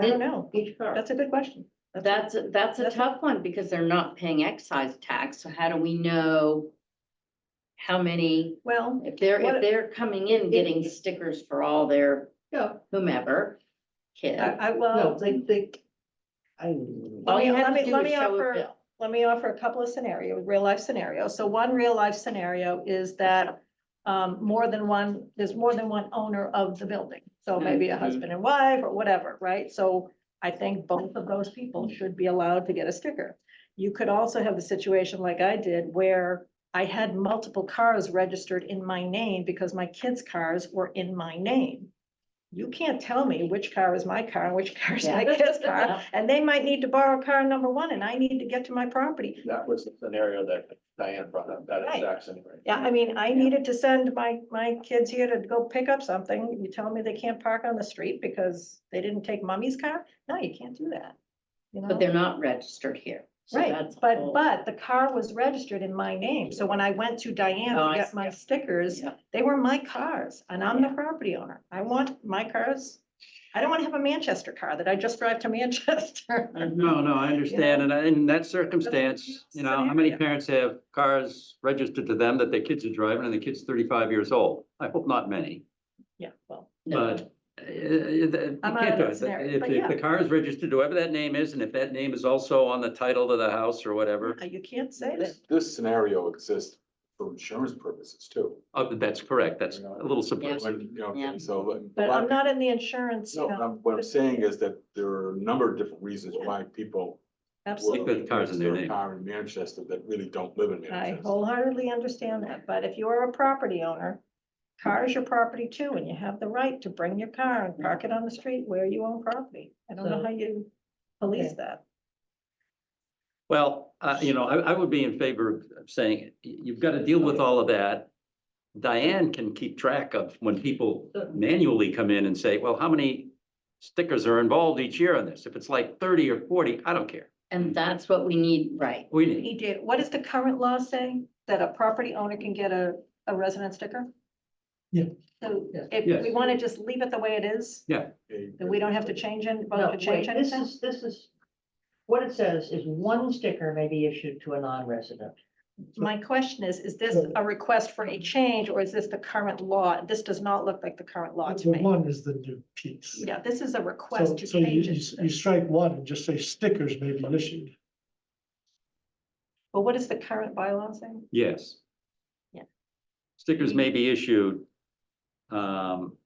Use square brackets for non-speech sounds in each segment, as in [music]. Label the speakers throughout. Speaker 1: I don't know.
Speaker 2: Each car.
Speaker 1: That's a good question.
Speaker 2: That's, that's a
Speaker 1: that's a-
Speaker 2: tough one because they're not paying excise tax. So how do we know? How many,
Speaker 1: Well,
Speaker 2: if they're,
Speaker 1: What-
Speaker 2: if they're coming in getting stickers for all their
Speaker 1: yeah,
Speaker 2: whomever kid.
Speaker 1: I, I,
Speaker 3: No,
Speaker 1: well,
Speaker 3: they, they. I wouldn't.
Speaker 2: All you
Speaker 1: let
Speaker 2: have
Speaker 1: me-
Speaker 2: to do
Speaker 1: let
Speaker 2: is
Speaker 1: me
Speaker 2: show
Speaker 1: offer-
Speaker 2: a bill.
Speaker 1: let me offer a couple of scenarios, real life scenarios. So one real life scenario is that um, more than one, there's more than one owner of the building. So
Speaker 3: Mm-hmm.
Speaker 1: maybe a
Speaker 2: Mhm.
Speaker 1: husband and wife or whatever, right? So I think both of those people
Speaker 3: Mm-hmm.
Speaker 1: should be allowed to get a sticker. You could also have the situation like I did where I had multiple cars registered in my name because my kids' cars were in my name. You can't tell me which car is my car and which [laughs] car is my
Speaker 2: Yeah.
Speaker 1: kid's car.
Speaker 2: [laughs] Yeah.
Speaker 1: And they might need to borrow car number one and I need to get to my property.
Speaker 3: That was the scenario that Diane brought up, that
Speaker 1: Right.
Speaker 3: exact scenario.
Speaker 1: Yeah, I mean, I needed to send my, my kids here to go pick up something. You tell me they can't park on the street because they didn't take mommy's car? No, you can't do that. You know?
Speaker 2: But they're not registered here. So
Speaker 1: Right,
Speaker 2: that's a
Speaker 1: but,
Speaker 2: whole-
Speaker 1: but the car was registered in my name. So when I went to Diane to
Speaker 2: Oh, I
Speaker 1: get
Speaker 2: see.
Speaker 1: my stickers,
Speaker 2: Yeah.
Speaker 1: they were my cars and I'm the property owner. I want my cars. I don't want to have a Manchester car that I just drive to [laughs]
Speaker 2: [laughs]
Speaker 1: Manchester.
Speaker 4: No, no, I understand, and I- in that circumstance, you know, how many
Speaker 1: Scenario.
Speaker 4: parents have cars registered to them that their kids are driving and the kid's thirty-five years old? I hope not many,
Speaker 1: Yeah, well,
Speaker 2: No.
Speaker 4: but uh, you
Speaker 1: I'm out
Speaker 4: can't
Speaker 1: of
Speaker 4: do
Speaker 1: that
Speaker 4: it.
Speaker 1: scenario,
Speaker 4: If,
Speaker 1: but
Speaker 4: if
Speaker 1: yeah.
Speaker 4: the car is registered to whoever that name is, and if that name is also on the title to the house or whatever,
Speaker 1: uh, you can't say that.
Speaker 5: This, this scenario exists for insurance purposes too.
Speaker 4: uh, that's correct, that's a little subversive.
Speaker 5: When, you know,
Speaker 2: Yeah.
Speaker 5: So. but-
Speaker 1: But I'm not in the insurance,
Speaker 5: No,
Speaker 1: you know,
Speaker 5: I'm- what I'm saying is that there are a number of different reasons
Speaker 1: Yeah.
Speaker 5: why people.
Speaker 1: absolutely.
Speaker 4: Because cars in their
Speaker 5: register
Speaker 4: name.
Speaker 5: a Car in Manchester that really don't live in
Speaker 1: I
Speaker 5: Manchester.
Speaker 1: wholeheartedly understand that, but if you're a property owner, car is your property too, and you have the right to bring your car and park it on the street where you own property. I don't know
Speaker 2: So-
Speaker 1: how you police that.
Speaker 4: Well, uh, you know, I, I would be in favor of- of saying, y- you've got to deal with all of that. Diane can keep track of when people manually come in and say, well, how many stickers are involved each year on this? If it's like thirty or forty, I don't care.
Speaker 2: And that's what we need, right?
Speaker 4: We
Speaker 1: He
Speaker 4: need,
Speaker 1: did, what does the current law say? That a property owner can get a, a resident sticker?
Speaker 3: Yeah.
Speaker 1: So
Speaker 3: Yeah.
Speaker 1: if we
Speaker 4: Yes.
Speaker 1: want to just leave it the way it is,
Speaker 5: A-
Speaker 1: that we don't have to change it,
Speaker 3: No,
Speaker 1: vote to
Speaker 3: wait,
Speaker 1: change
Speaker 3: this
Speaker 1: anything?
Speaker 3: is, this is, what it says is one sticker may be issued to a non-resident.
Speaker 1: My question is, is this a request for a change or is this the current law? This does not look like the current law to
Speaker 6: The
Speaker 1: me.
Speaker 6: one is the new piece.
Speaker 1: Yeah, this is a
Speaker 6: So,
Speaker 1: request to
Speaker 6: so you,
Speaker 1: change
Speaker 6: you
Speaker 1: it.
Speaker 6: you strike one and just say stickers may be issued.
Speaker 1: But what is the current bylaw saying?
Speaker 4: yes.
Speaker 1: Yeah.
Speaker 4: Stickers may be issued. Um,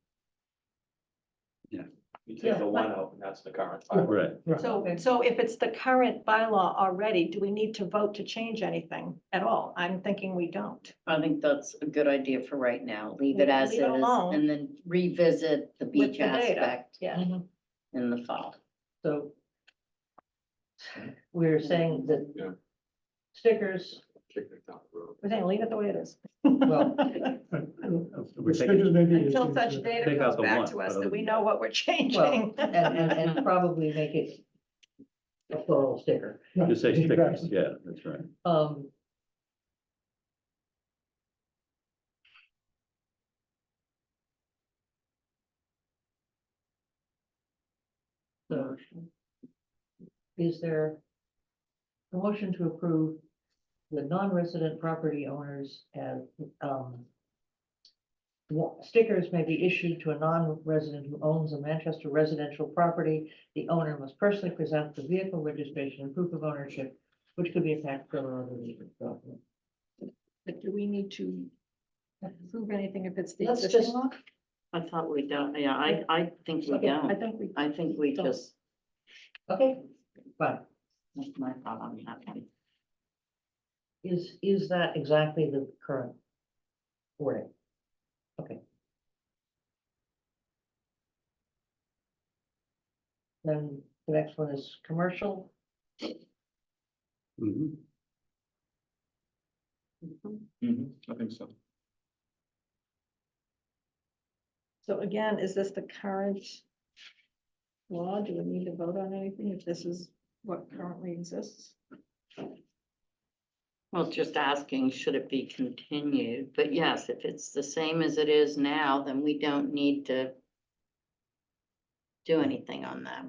Speaker 3: You
Speaker 1: take the one
Speaker 3: out, and that's the current.
Speaker 4: right,
Speaker 1: So, so if it's the current bylaw already, do we need to vote to change anything at all? I'm thinking we don't.
Speaker 2: I think that's a good idea for right now. Leave it as
Speaker 1: Leave
Speaker 2: it
Speaker 1: it
Speaker 2: is
Speaker 1: alone.
Speaker 2: and then revisit the beach
Speaker 1: the data.
Speaker 2: aspect
Speaker 1: Yeah.
Speaker 2: in the fall.
Speaker 3: Mm-hmm.
Speaker 1: [laughs]
Speaker 3: So we're saying
Speaker 5: Yeah.
Speaker 3: that stickers,
Speaker 5: kick it down the road.
Speaker 1: We're saying leave it the way it is.
Speaker 6: [laughs]
Speaker 3: well,
Speaker 4: We're taking-
Speaker 6: Stickers may be
Speaker 1: Until
Speaker 6: issued
Speaker 1: such
Speaker 6: to-
Speaker 1: data
Speaker 4: Take
Speaker 1: comes
Speaker 4: out the
Speaker 1: back
Speaker 4: one,
Speaker 1: to us
Speaker 4: but
Speaker 1: that we
Speaker 4: other-
Speaker 1: know what we're changing.
Speaker 3: well, and, and, and probably make it a plural sticker.
Speaker 6: Right,
Speaker 4: Just say stickers,
Speaker 6: exactly.
Speaker 4: yeah, that's right.
Speaker 3: Um, So, is there a motion to approve the non-resident property owners as, um, wa- stickers may be issued to a non-resident who owns a Manchester residential property. The owner must personally present the vehicle registration and proof of ownership which could be a factor or other legal document.
Speaker 1: But do we need to approve anything if it's the
Speaker 3: Let's
Speaker 1: existing
Speaker 3: just-
Speaker 1: law?
Speaker 2: I thought we don't, yeah, I, I think we
Speaker 1: Okay, I
Speaker 2: don't.
Speaker 1: think we,
Speaker 2: I think we
Speaker 1: Don't.
Speaker 2: just,
Speaker 3: Okay, fine.
Speaker 2: that's my thought on that one.
Speaker 3: Is, is that exactly the current wording? Okay. Then the next one is commercial.
Speaker 4: Mhm.
Speaker 5: I think so.
Speaker 1: so again, is this the current law? Do we need to vote on anything if this is what currently exists?
Speaker 2: Well, just asking, should it be continued? But yes, if it's the same as it is now, then we don't need to do anything on that.